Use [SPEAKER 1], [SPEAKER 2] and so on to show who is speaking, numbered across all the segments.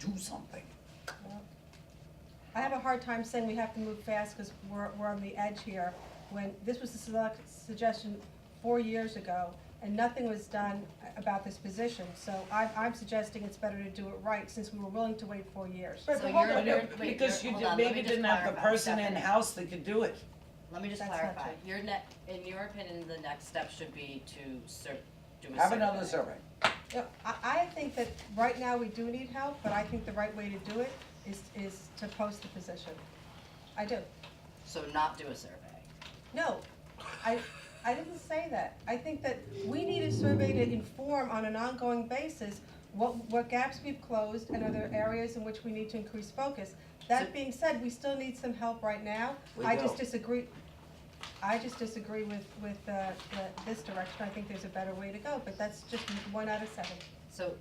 [SPEAKER 1] do something.
[SPEAKER 2] I have a hard time saying we have to move fast because we're, we're on the edge here. When, this was a select suggestion four years ago and nothing was done about this position. So I'm, I'm suggesting it's better to do it right since we were willing to wait four years.
[SPEAKER 3] Right,
[SPEAKER 4] So
[SPEAKER 3] but hold
[SPEAKER 4] you're-
[SPEAKER 3] on,
[SPEAKER 4] you're-
[SPEAKER 3] no,
[SPEAKER 4] wait,
[SPEAKER 3] because
[SPEAKER 4] you're-
[SPEAKER 3] you
[SPEAKER 4] hold
[SPEAKER 3] did,
[SPEAKER 4] on, let
[SPEAKER 3] maybe
[SPEAKER 4] me just
[SPEAKER 3] didn't have the
[SPEAKER 4] clarify,
[SPEAKER 3] person
[SPEAKER 4] Stephanie.
[SPEAKER 3] in-house that could do it.
[SPEAKER 4] Let me just
[SPEAKER 2] That's not
[SPEAKER 4] clarify,
[SPEAKER 2] true.
[SPEAKER 4] your ne- in your opinion, the next step should be to ser- do a survey.
[SPEAKER 1] Have another survey.
[SPEAKER 2] Yeah, I, I think that right now we do need help, but I think the right way to do it is, is to post the position. I do.
[SPEAKER 4] So not do a survey.
[SPEAKER 2] No, I, I didn't say that. I think that we need a survey to inform on an ongoing basis what, what gaps we've closed and other areas in which we need to increase focus. That being said, we still need some help right now.
[SPEAKER 1] We
[SPEAKER 2] I just
[SPEAKER 1] do.
[SPEAKER 2] disagree, I just disagree with, with, uh, the- this direction. I think there's a better way to go, but that's just one out of seven.
[SPEAKER 4] So,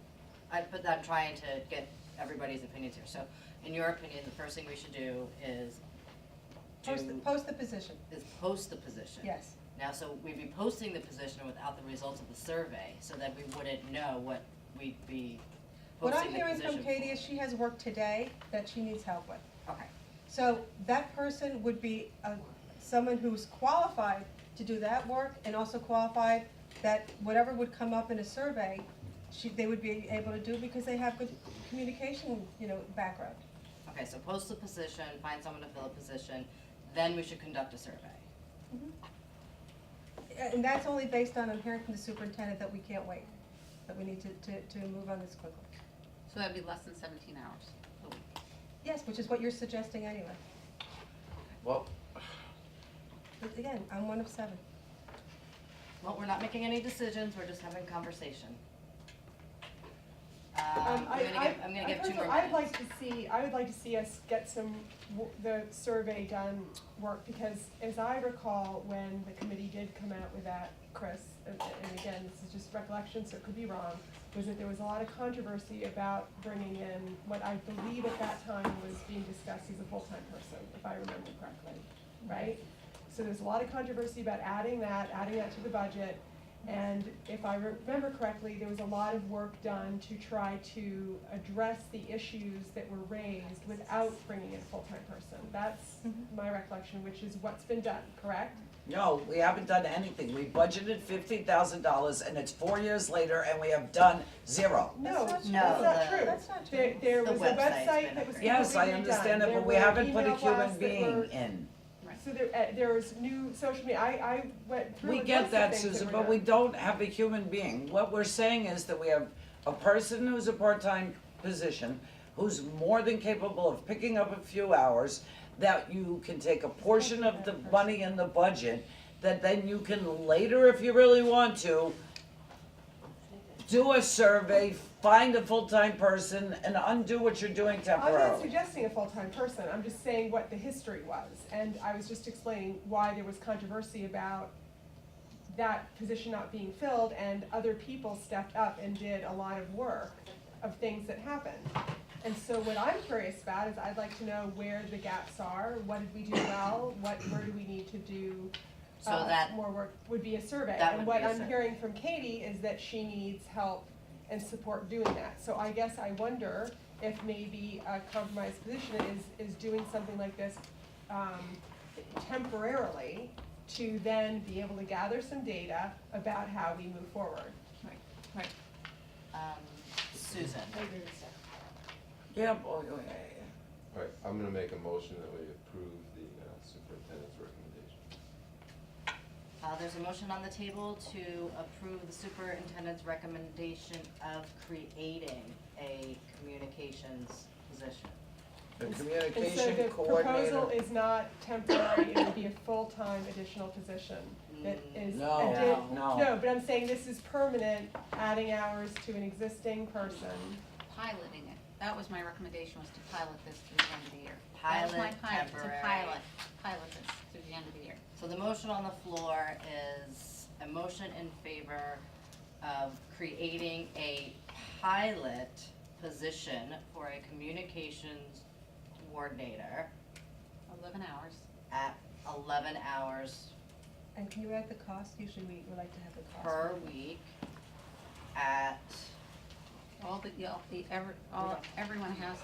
[SPEAKER 4] I, but I'm trying to get everybody's opinions here, so in your opinion, the first thing we should do is
[SPEAKER 2] Post, the-
[SPEAKER 4] do-
[SPEAKER 2] post the position,
[SPEAKER 4] is post the position.
[SPEAKER 2] yes.
[SPEAKER 4] Now, so we'd be posting the position without the results of the survey, so that we wouldn't know what we'd be
[SPEAKER 2] What I'm
[SPEAKER 4] posting the
[SPEAKER 2] hearing from
[SPEAKER 4] position
[SPEAKER 2] Katie
[SPEAKER 4] for.
[SPEAKER 2] is she has work today that she needs help with.
[SPEAKER 4] Okay,
[SPEAKER 2] So that person would be uh, someone who's qualified to do that work and also qualified that whatever would come up in a survey, she, they would be able to do because they have good communication, you know, background.
[SPEAKER 4] okay, so post the position, find someone to fill a position, then we should conduct a survey.
[SPEAKER 2] And that's only based on, I'm hearing from the superintendent that we can't wait, that we need to, to, to move on this quickly.
[SPEAKER 5] So that'd be less than seventeen hours.
[SPEAKER 2] Yes, which is what you're suggesting anyway.
[SPEAKER 1] Well,
[SPEAKER 2] But again, I'm one of seven.
[SPEAKER 4] Well, we're not making any decisions, we're just having conversation. Um,
[SPEAKER 6] Um,
[SPEAKER 4] I'm
[SPEAKER 6] I,
[SPEAKER 4] gonna give,
[SPEAKER 6] I,
[SPEAKER 4] I'm
[SPEAKER 6] I
[SPEAKER 4] gonna give two
[SPEAKER 6] personally-
[SPEAKER 4] more
[SPEAKER 6] I'd
[SPEAKER 4] minutes.
[SPEAKER 6] like to see, I would like to see us get some, w- the survey done work, because as I recall, when the committee did come out with that, Chris, and, and again, this is just recollection, so it could be wrong, was that there was a lot of controversy about bringing in what I believe at that time was being discussed as a full-time person, if I remember correctly, right? So there's a lot of controversy about adding that, adding that to the budget. And if I remember correctly, there was a lot of work done to try to address the issues that were raised without bringing in a full-time person. That's
[SPEAKER 4] Mm-hmm.
[SPEAKER 6] my recollection, which is what's been done, correct?
[SPEAKER 3] No, we haven't done anything. We budgeted fifty thousand dollars and it's four years later and we have done zero.
[SPEAKER 6] No,
[SPEAKER 2] That's
[SPEAKER 4] not
[SPEAKER 6] that's
[SPEAKER 4] true. No, the-
[SPEAKER 6] not true.
[SPEAKER 2] That's not
[SPEAKER 6] There,
[SPEAKER 2] true.
[SPEAKER 6] there
[SPEAKER 4] The
[SPEAKER 6] was a
[SPEAKER 4] website's
[SPEAKER 6] website
[SPEAKER 4] been
[SPEAKER 6] that was completely redone.
[SPEAKER 4] upgraded.
[SPEAKER 3] Yes, I understand it, but we haven't put a human
[SPEAKER 6] There were email
[SPEAKER 3] being
[SPEAKER 6] blasts that were-
[SPEAKER 3] in.
[SPEAKER 6] so there, uh, there was new social media, I, I went through
[SPEAKER 3] We
[SPEAKER 6] a
[SPEAKER 3] get
[SPEAKER 6] list of
[SPEAKER 3] that,
[SPEAKER 6] things
[SPEAKER 3] Susan,
[SPEAKER 6] were
[SPEAKER 3] but
[SPEAKER 6] done.
[SPEAKER 3] we don't have a human being. What we're saying is that we have a person who's a part-time position, who's more than capable of picking up a few hours, that you can take a portion of the money in the budget, that then you can later, if you really want to, do a survey, find a full-time person, and undo what you're doing
[SPEAKER 6] I'm not
[SPEAKER 3] temporarily.
[SPEAKER 6] suggesting a full-time person, I'm just saying what the history was, and I was just explaining why there was controversy about that position not being filled, and other people stepped up and did a lot of work of things that happened. And so what I'm curious about is I'd like to know where the gaps are, what did we do well, what, where do we need to do
[SPEAKER 4] So
[SPEAKER 6] uh,
[SPEAKER 4] that,
[SPEAKER 6] more work would be a survey.
[SPEAKER 4] that would
[SPEAKER 6] And what
[SPEAKER 4] be a
[SPEAKER 6] I'm
[SPEAKER 4] survey.
[SPEAKER 6] hearing from Katie is that she needs help and support doing that. So I guess I wonder if maybe a compromise position is, is doing something like this um, temporarily to then be able to gather some data about how we move forward.
[SPEAKER 4] um, Susan,
[SPEAKER 3] Yeah, boy, boy,
[SPEAKER 7] All right, I'm gonna make a motion that we approve the uh, superintendent's recommendation.
[SPEAKER 4] uh, there's a motion on the table to approve the superintendent's recommendation of creating a communications position.
[SPEAKER 3] the
[SPEAKER 6] And so
[SPEAKER 3] communication
[SPEAKER 6] the proposal
[SPEAKER 3] coordinator.
[SPEAKER 6] is not temporary, it would be a full-time additional position that is.
[SPEAKER 3] Mm, No,
[SPEAKER 6] addi-
[SPEAKER 3] no.
[SPEAKER 6] No, but I'm saying this is permanent, adding hours to an existing person.
[SPEAKER 5] Piloting it, that was my recommendation, was to pilot this through the end of the year. That was my
[SPEAKER 4] Pilot,
[SPEAKER 5] pilot, to
[SPEAKER 4] temporary.
[SPEAKER 5] pilot, pilot this through the end of the year.
[SPEAKER 4] Mm, So the motion on the floor is a motion in favor of creating a pilot position for a communications coordinator
[SPEAKER 5] Eleven hours,
[SPEAKER 4] at eleven hours
[SPEAKER 2] And can you add the cost? Usually we would like to have the cost.
[SPEAKER 4] per week at
[SPEAKER 5] all the, yeah, the, every, all, everyone has